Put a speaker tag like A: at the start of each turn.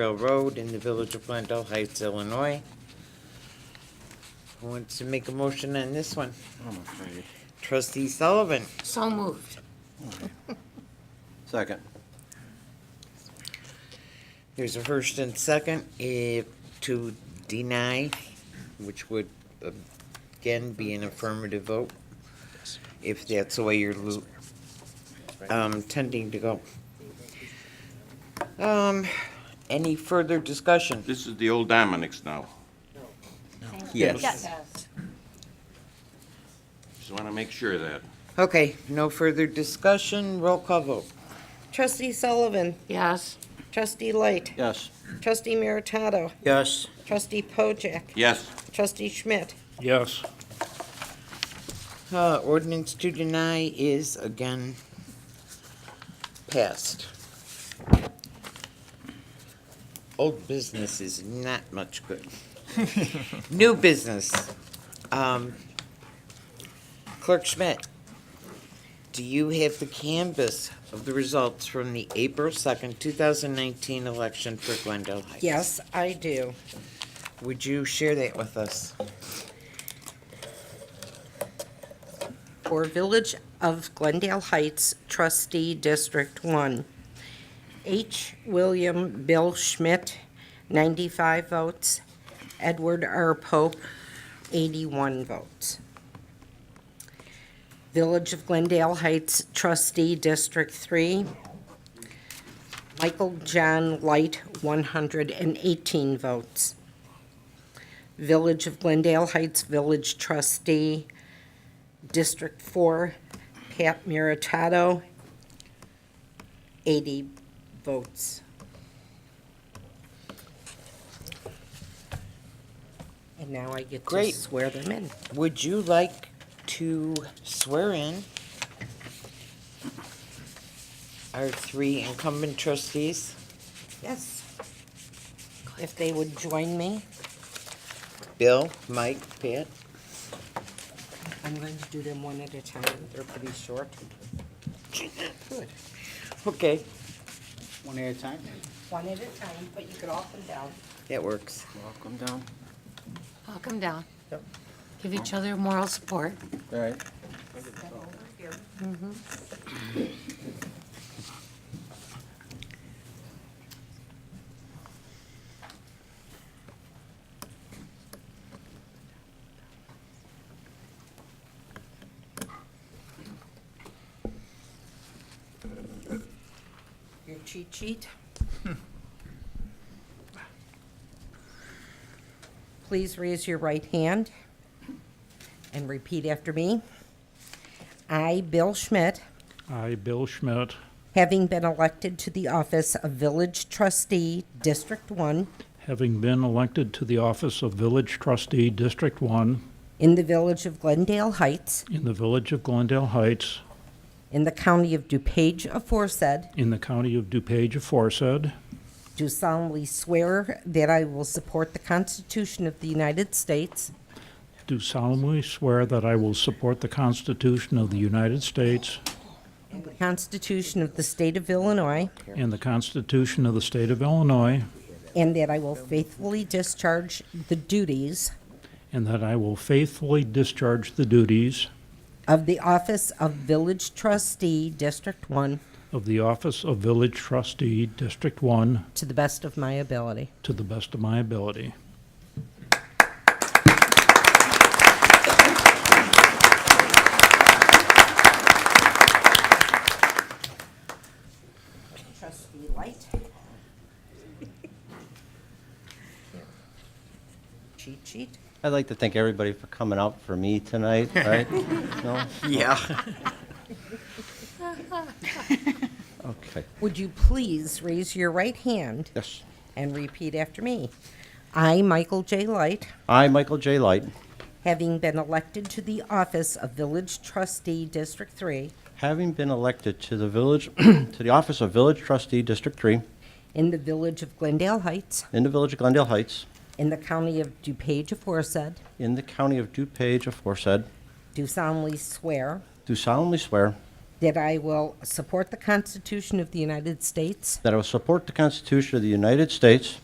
A: Trail Road in the village of Glendale Heights, Illinois. Who wants to make a motion on this one?
B: I'm afraid.
A: Trustee Sullivan,
C: So moved.
B: Second.
A: there's a first and second, if to deny, which would uh, again be an affirmative vote, if that's the way you're lo- um, tending to go. Um, any further discussion?
D: This is the old Dominic's now.
B: Yes.
D: Just want to make sure of that.
A: Okay, no further discussion, roll call vote.
E: Trustee Sullivan,
C: Yes.
E: Trustee Light,
B: Yes.
E: Trustee Meritato,
B: Yes.
E: Trustee Pojek,
D: Yes,
E: Trustee Schmidt,
F: Yes,
A: Uh, ordinance to deny is again passed. Old business is not much good. New business. Um, Clerk Schmidt, do you have the canvas of the results from the April second, two thousand nineteen election for Glendale Heights?
E: Yes, I do.
A: Would you share that with us?
E: For Village of Glendale Heights trustee District One. H. William Bill Schmidt, ninety-five votes. Edward R. Pope, eighty-one votes. Village of Glendale Heights trustee District Three. Michael John Light, one hundred and eighteen votes. Village of Glendale Heights Village trustee District Four, Pat Meritato, eighty votes. And now I get to
A: Great.
E: swear them in.
A: Would you like to swear in our three incumbent trustees?
E: Yes. If they would join me,
A: Bill, Mike, Pat?
E: I'm going to do them one at a time. They're pretty short. Good.
A: Okay,
B: One at a time.
E: One at a time, but you could all come down.
A: that works.
B: Welcome down.
C: I'll come down. Give each other moral support.
B: All right.
E: Your cheat sheet. Please raise your right hand and repeat after me. I, Bill Schmidt,
F: I, Bill Schmidt,
E: having been elected to the office of Village Trustee, District One,
F: having been elected to the office of Village Trustee, District 1,
E: in the Village of Glendale Heights,
F: in the village of Glendale Heights,
E: in the county of DuPage aforesaid,
F: in the county of DuPage aforesaid,
E: do solemnly swear that I will support the Constitution of the United States
F: do solemnly swear that I will support the Constitution of the United States
E: and the Constitution of the State of Illinois,
F: and the Constitution of the State of Illinois,
E: And that I will faithfully discharge the duties
F: and that I will faithfully discharge the duties
E: of the office of Village Trustee, District One,
F: of the office of Village Trustee, District 1,
E: to the best of my ability.
F: to the best of my ability.
E: Trustee Light. Cheat sheet.
G: I'd like to thank everybody for coming out for me tonight, right? No?
A: Yeah.
G: Okay.
E: Would you please raise your right hand
G: Yes.
E: and repeat after me? I, Michael J. Light,
G: I, Michael J. Light,
E: having been elected to the office of Village Trustee, District Three,
G: having been elected to the village, to the office of Village Trustee, District Three,
E: in the Village of Glendale Heights,
G: in the village of Glendale Heights,
E: in the county of DuPage aforesaid,
G: in the county of DuPage aforesaid,
E: do solemnly swear
G: do solemnly swear
E: that I will support the Constitution of the United States
G: that I will support the Constitution of the United States